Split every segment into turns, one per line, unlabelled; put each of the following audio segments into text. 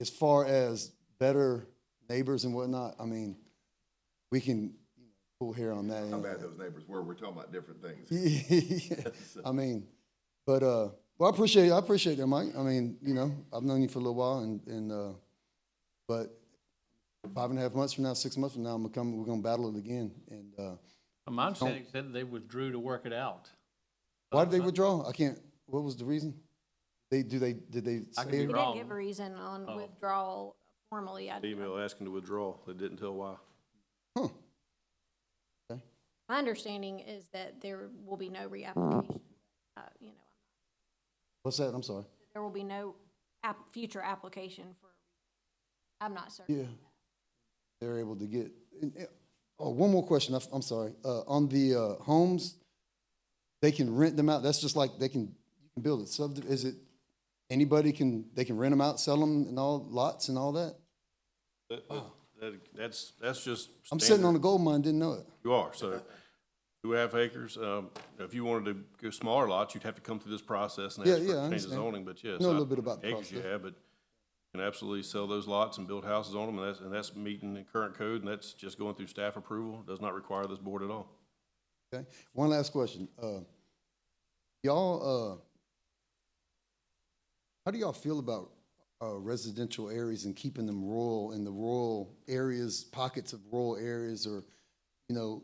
as far as better neighbors and whatnot, I mean, we can pull hair on that.
How
end.
bad those neighbors were. We're talking about different things.
I mean, but uh, well, I appreciate I appreciate that, Mike. I mean, you know, I've known you for a little while, and and uh, but five and a half months from now, six months from now, I'm gonna come. We're gonna battle it again. And uh,
My understanding said they withdrew to work it out.
why did they withdraw? I can't. What was the reason? They do they did they
I could
say
be
it?
wrong.
He didn't Oh. give a reason on withdrawal formally. I-
Email asking to withdraw. They didn't tell why.
Huh.
My understanding is that there will be no reapplication. uh, You know,
What's that? I'm sorry.
there will be no app, future application for, I'm not certain.
Yeah, they're able to get. and, uh, Oh, one more question. I f- I'm sorry. Uh, on the uh, homes, they can rent them out. That's just like they can you can build it. Sub is it anybody can they can rent them out, sell them, and all lots and all that.
That- that- That's, that's just.
I'm sitting on a
standard.
gold mine. Didn't know it.
You are, so two half acres, um, if you wanted to go smaller lots, you'd have to come through this process and
Yeah,
ask for
yeah, I
a change of
understand.
zoning, but yes.
Know a
I-
little bit about the
Acres you
process.
have, but you can absolutely sell those lots and build houses on them, and that's, and that's meeting the current code, and that's just going through staff approval, does not require this board at all.
Okay. One last question. Uh, y'all, uh, how do y'all feel about uh, residential areas and keeping them rural in the rural areas, pockets of rural areas, or you know,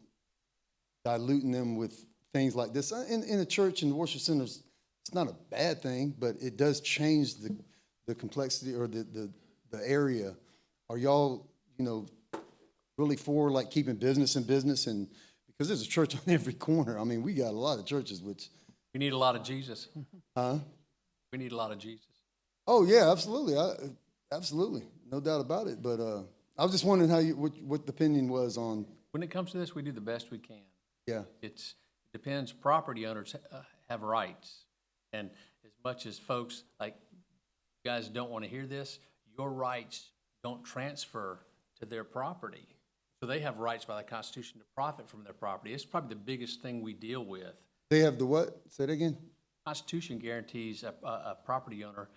diluting them with things like this? Uh, In in the church and worship centers, it's not a bad thing, but it does change the the complexity or the the, the area. Are y'all you know really for like keeping business in business and because there's a church on every corner. I mean, we got a lot of churches, which,
We need a lot of Jesus.
huh?
We need a lot of Jesus.
Oh yeah, absolutely. I, absolutely, no doubt about it. But uh, I was just wondering how you what, what the opinion was on.
When it comes to this, we do the best we can.
Yeah,
It's, depends, property owners uh, have rights. And as much as folks, like, you guys don't want to hear this, your rights don't transfer to their property. So they have rights by the Constitution to profit from their property. It's probably the biggest thing we deal with.
they have the what? Say it again.
Constitution guarantees a, a, a property owner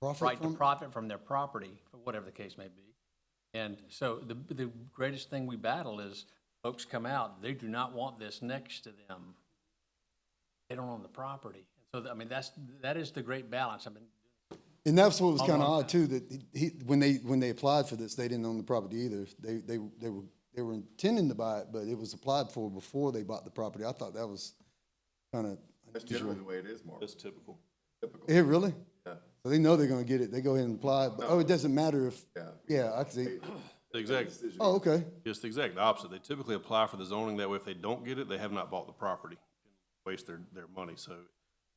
Profit
right to
from-
profit from their property, or whatever the case may be. And so the, the greatest thing we battle is folks come out, they do not want this next to them. They don't own the property. So, I mean, that's, that is the great balance. I mean,
and that's what was kind of
Hold on.
odd too. That he, he, when they when they applied for this, they didn't own the property either. They they they were they were intending to buy it, but it was applied for before they bought the property. I thought that was kind of
That's generally the way it is, Mark.
That's typical.
Typical.
it really.
Yeah.
So they know they're gonna get it. They go ahead and apply. But, oh, it doesn't matter if.
Yeah.
Yeah, I can see.
Exactly,
Oh, okay.
it's the exact opposite. They typically apply for the zoning, that way if they don't get it, they have not bought the property, waste their, their money, so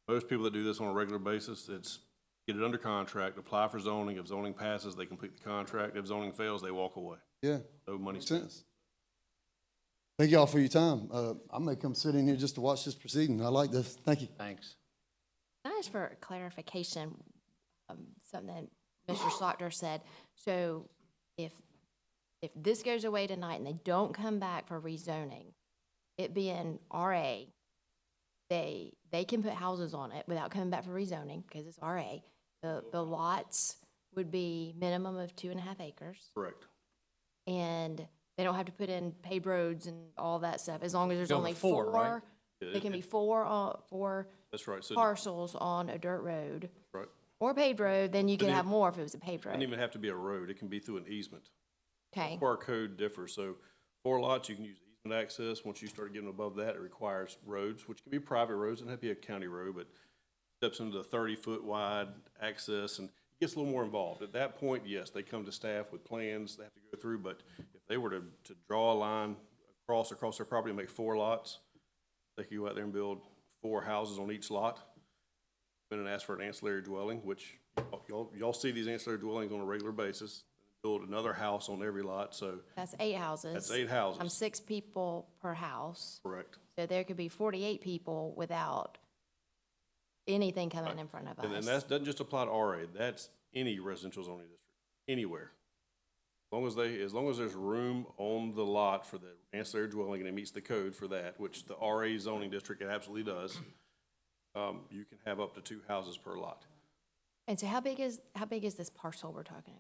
most people that do this on a regular basis, it's get it under contract, apply for zoning, if zoning passes, they complete the contract, if zoning fails, they walk away,
Yeah.
no money
Makes
spent.
sense. Thank y'all for your time. Uh, I may come sit in here just to watch this proceeding. I like this. Thank you.
thanks.
Can I ask for clarification, um, something that Mr. Slaughter said? So if, if this goes away tonight and they don't come back for rezoning, it being RA, they, they can put houses on it without coming back for rezoning, because it's RA. The, the lots would be minimum of two and a half acres,
Correct.
and they don't have to put in paved roads and all that stuff, as long as there's
Go with
only
four, right?
four. It can be four, uh, four
That's right, so,
parcels on a dirt road
right.
or paved road, then you could
Doesn't
have
even-
more if it was a paved
Doesn't
road.
even have to be a road, it can be through an easement.
Okay,
Where our code differs, so four lots, you can use easement access, once you start getting above that, it requires roads, which can be private roads, it doesn't have to be a county road, but steps into the thirty-foot wide access, and it gets a little more involved. At that point, yes, they come to staff with plans they have to go through, but if they were to, to draw a line across, across their property and make four lots, they could go out there and build four houses on each lot, and ask for an ancillary dwelling, which y'all, y'all see these ancillary dwellings on a regular basis, build another house on every lot, so
that's eight houses.
that's eight
I'm
houses,
six people per house,
correct?
so there could be forty-eight people without anything coming in front of
And then
us.
that doesn't just apply to RA, that's any residential zoning district, anywhere. As long as they, as long as there's room on the lot for the ancillary dwelling and it meets the code for that, which the RA zoning district it absolutely does, um, you can have up to two houses per lot.
And so how big is, how big is this parcel we're talking about?